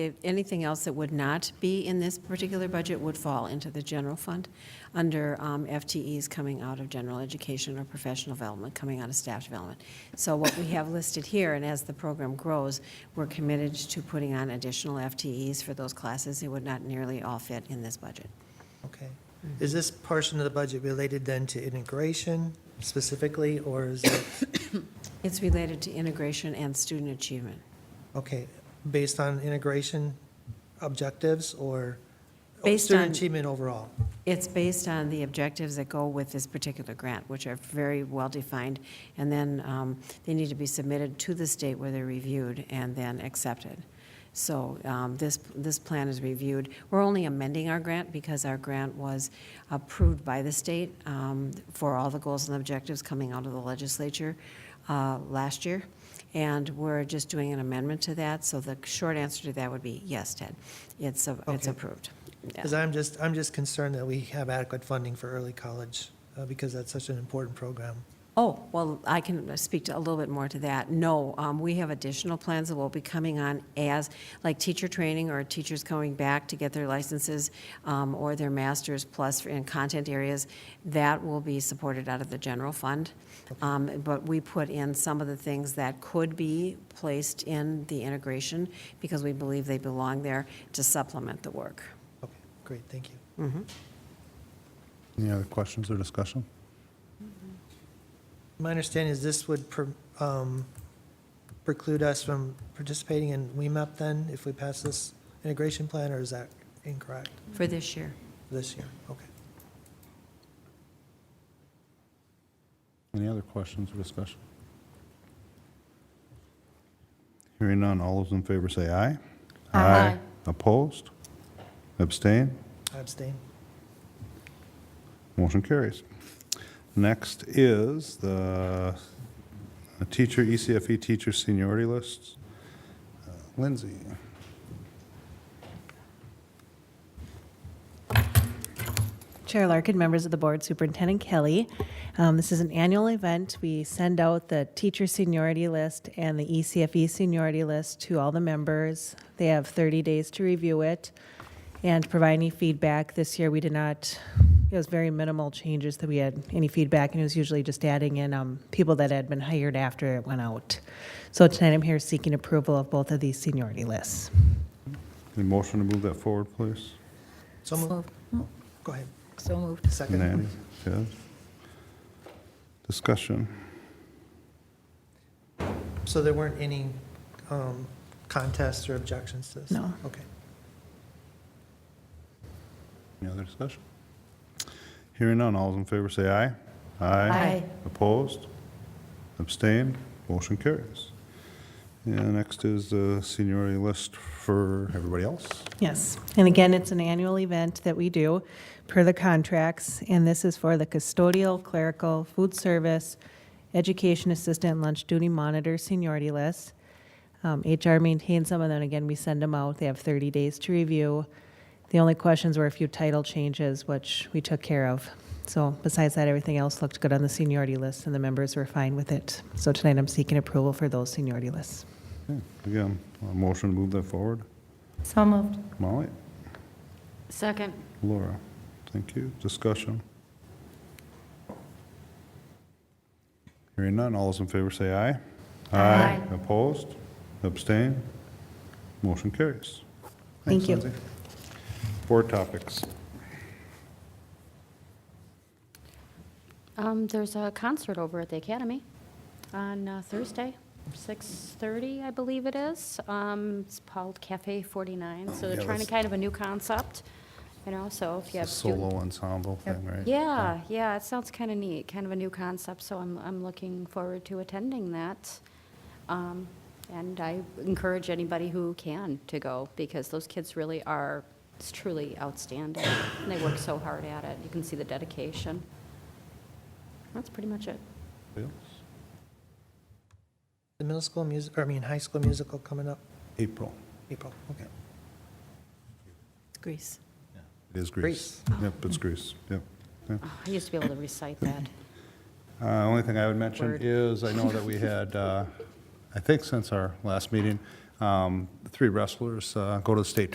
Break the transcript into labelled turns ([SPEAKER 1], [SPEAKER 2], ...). [SPEAKER 1] If Anything else that would not be in this particular budget would fall into the general fund under um, FTEs coming out of general education or professional development, coming out of staff development. So what we have listed here, and as the program grows, we're committed to putting on additional FTEs for those classes. It would not nearly all fit in this budget.
[SPEAKER 2] Okay. Is this portion of the budget related then to integration specifically, or is it,
[SPEAKER 1] It's related to integration and student achievement.
[SPEAKER 2] okay, based on integration objectives or oh,
[SPEAKER 1] Based on-
[SPEAKER 2] student achievement overall?
[SPEAKER 1] It's based on the objectives that go with this particular grant, which are very well-defined, and then um, they need to be submitted to the state where they're reviewed and then accepted. So um, this, this plan is reviewed. We're only amending our grant because our grant was approved by the state um, for all the goals and objectives coming out of the legislature uh, last year, and we're just doing an amendment to that, so the short answer to that would be yes, Ted. It's, a- it's
[SPEAKER 2] Okay.
[SPEAKER 1] approved. Yeah.
[SPEAKER 2] Because I'm just, I'm just concerned that we have adequate funding for early college, uh, because that's such an important program.
[SPEAKER 1] Oh, well, I can speak to- a little bit more to that. No, um, we have additional plans that will be coming on as, like teacher training or teachers coming back to get their licenses um, or their masters plus in content areas. That will be supported out of the general fund. Um, But we put in some of the things that could be placed in the integration because we believe they belong there to supplement the work.
[SPEAKER 2] Okay, great, thank you.
[SPEAKER 3] Any other questions or discussion?
[SPEAKER 2] My understanding is this would pre- um, preclude us from participating in WEMAP then, if we pass this integration plan, or is that incorrect
[SPEAKER 1] For this year.
[SPEAKER 2] this year? Okay.
[SPEAKER 3] Any other questions or discussion? Hearing none, all those in favor say aye.
[SPEAKER 4] Aye.
[SPEAKER 3] Opposed? Abstain?
[SPEAKER 2] I abstain.
[SPEAKER 3] Motion carries. Next is the teacher, E ECFE teacher seniority list. Uh, Lindsay,
[SPEAKER 4] Chair Larkin, members of the board, Superintendent Kelly. Um, This is an annual event. We send out the teacher seniority list and the E ECFE seniority list to all the members. They have 30 days to review it and provide any feedback. This year, we did not, it was very minimal changes that we had any feedback, and it was usually just adding in um, people that had been hired after it went out. So tonight, I'm here seeking approval of both of these seniority lists.
[SPEAKER 3] any motion to move that forward, please?
[SPEAKER 2] So moved. Go ahead.
[SPEAKER 5] So moved.
[SPEAKER 2] Second.
[SPEAKER 3] Nanny, Ted? Discussion.
[SPEAKER 2] So there weren't any um, contests or objections to this?
[SPEAKER 4] No.
[SPEAKER 2] Okay.
[SPEAKER 3] Any other discussion? Hearing none, all those in favor say aye.
[SPEAKER 5] Aye.
[SPEAKER 3] Opposed? Abstained? Motion carries. And next is the seniority list for everybody else.
[SPEAKER 4] Yes, and again, it's an annual event that we do per the contracts, and this is for the custodial, clerical, food service, education assistant, lunch duty monitor, seniority list. Um, HR maintains them, and then again, we send them out. They have 30 days to review. The only questions were a few title changes, which we took care of. So besides that, everything else looked good on the seniority list, and the members were fine with it. So tonight, I'm seeking approval for those seniority lists.
[SPEAKER 3] Okay, Again, a motion to move that forward.
[SPEAKER 5] So moved.
[SPEAKER 3] Molly?
[SPEAKER 5] Second.
[SPEAKER 3] Laura? Thank you. Discussion. Hearing none, all those in favor say aye.
[SPEAKER 5] Aye.
[SPEAKER 3] Opposed? Abstained? Motion carries.
[SPEAKER 4] Thank
[SPEAKER 3] Thanks,
[SPEAKER 4] you.
[SPEAKER 3] Lindsay. Board topics.
[SPEAKER 6] Um, there's a concert over at the Academy on uh, Thursday, 6:30, I believe it is. Um, it's called Cafe 49, so
[SPEAKER 3] yeah,
[SPEAKER 6] they're trying to
[SPEAKER 3] that's-
[SPEAKER 6] kind of a new concept, you know, so if you have
[SPEAKER 3] It's a
[SPEAKER 6] student-
[SPEAKER 3] Solo ensemble thing, right?
[SPEAKER 6] Yeah, yeah, it sounds kind of neat, kind of a new concept, so I'm, I'm looking forward to attending that. Um, and I encourage anybody who can to go, because those kids really are it's truly outstanding, and they work so hard at it. You can see the dedication. That's pretty much it.
[SPEAKER 3] Anybody else?
[SPEAKER 2] The middle school music, or I mean, high school musical coming up
[SPEAKER 3] April.
[SPEAKER 2] April, okay.
[SPEAKER 1] It's Greece.
[SPEAKER 3] It is Greece. Yep, it's Greece, yep. yeah.
[SPEAKER 6] Oh, I used to be able to recite that.
[SPEAKER 3] Uh, Only thing I would mention
[SPEAKER 6] Word.
[SPEAKER 3] is, I know that we had, uh, I think since our last meeting, Um, Three wrestlers uh, go to the state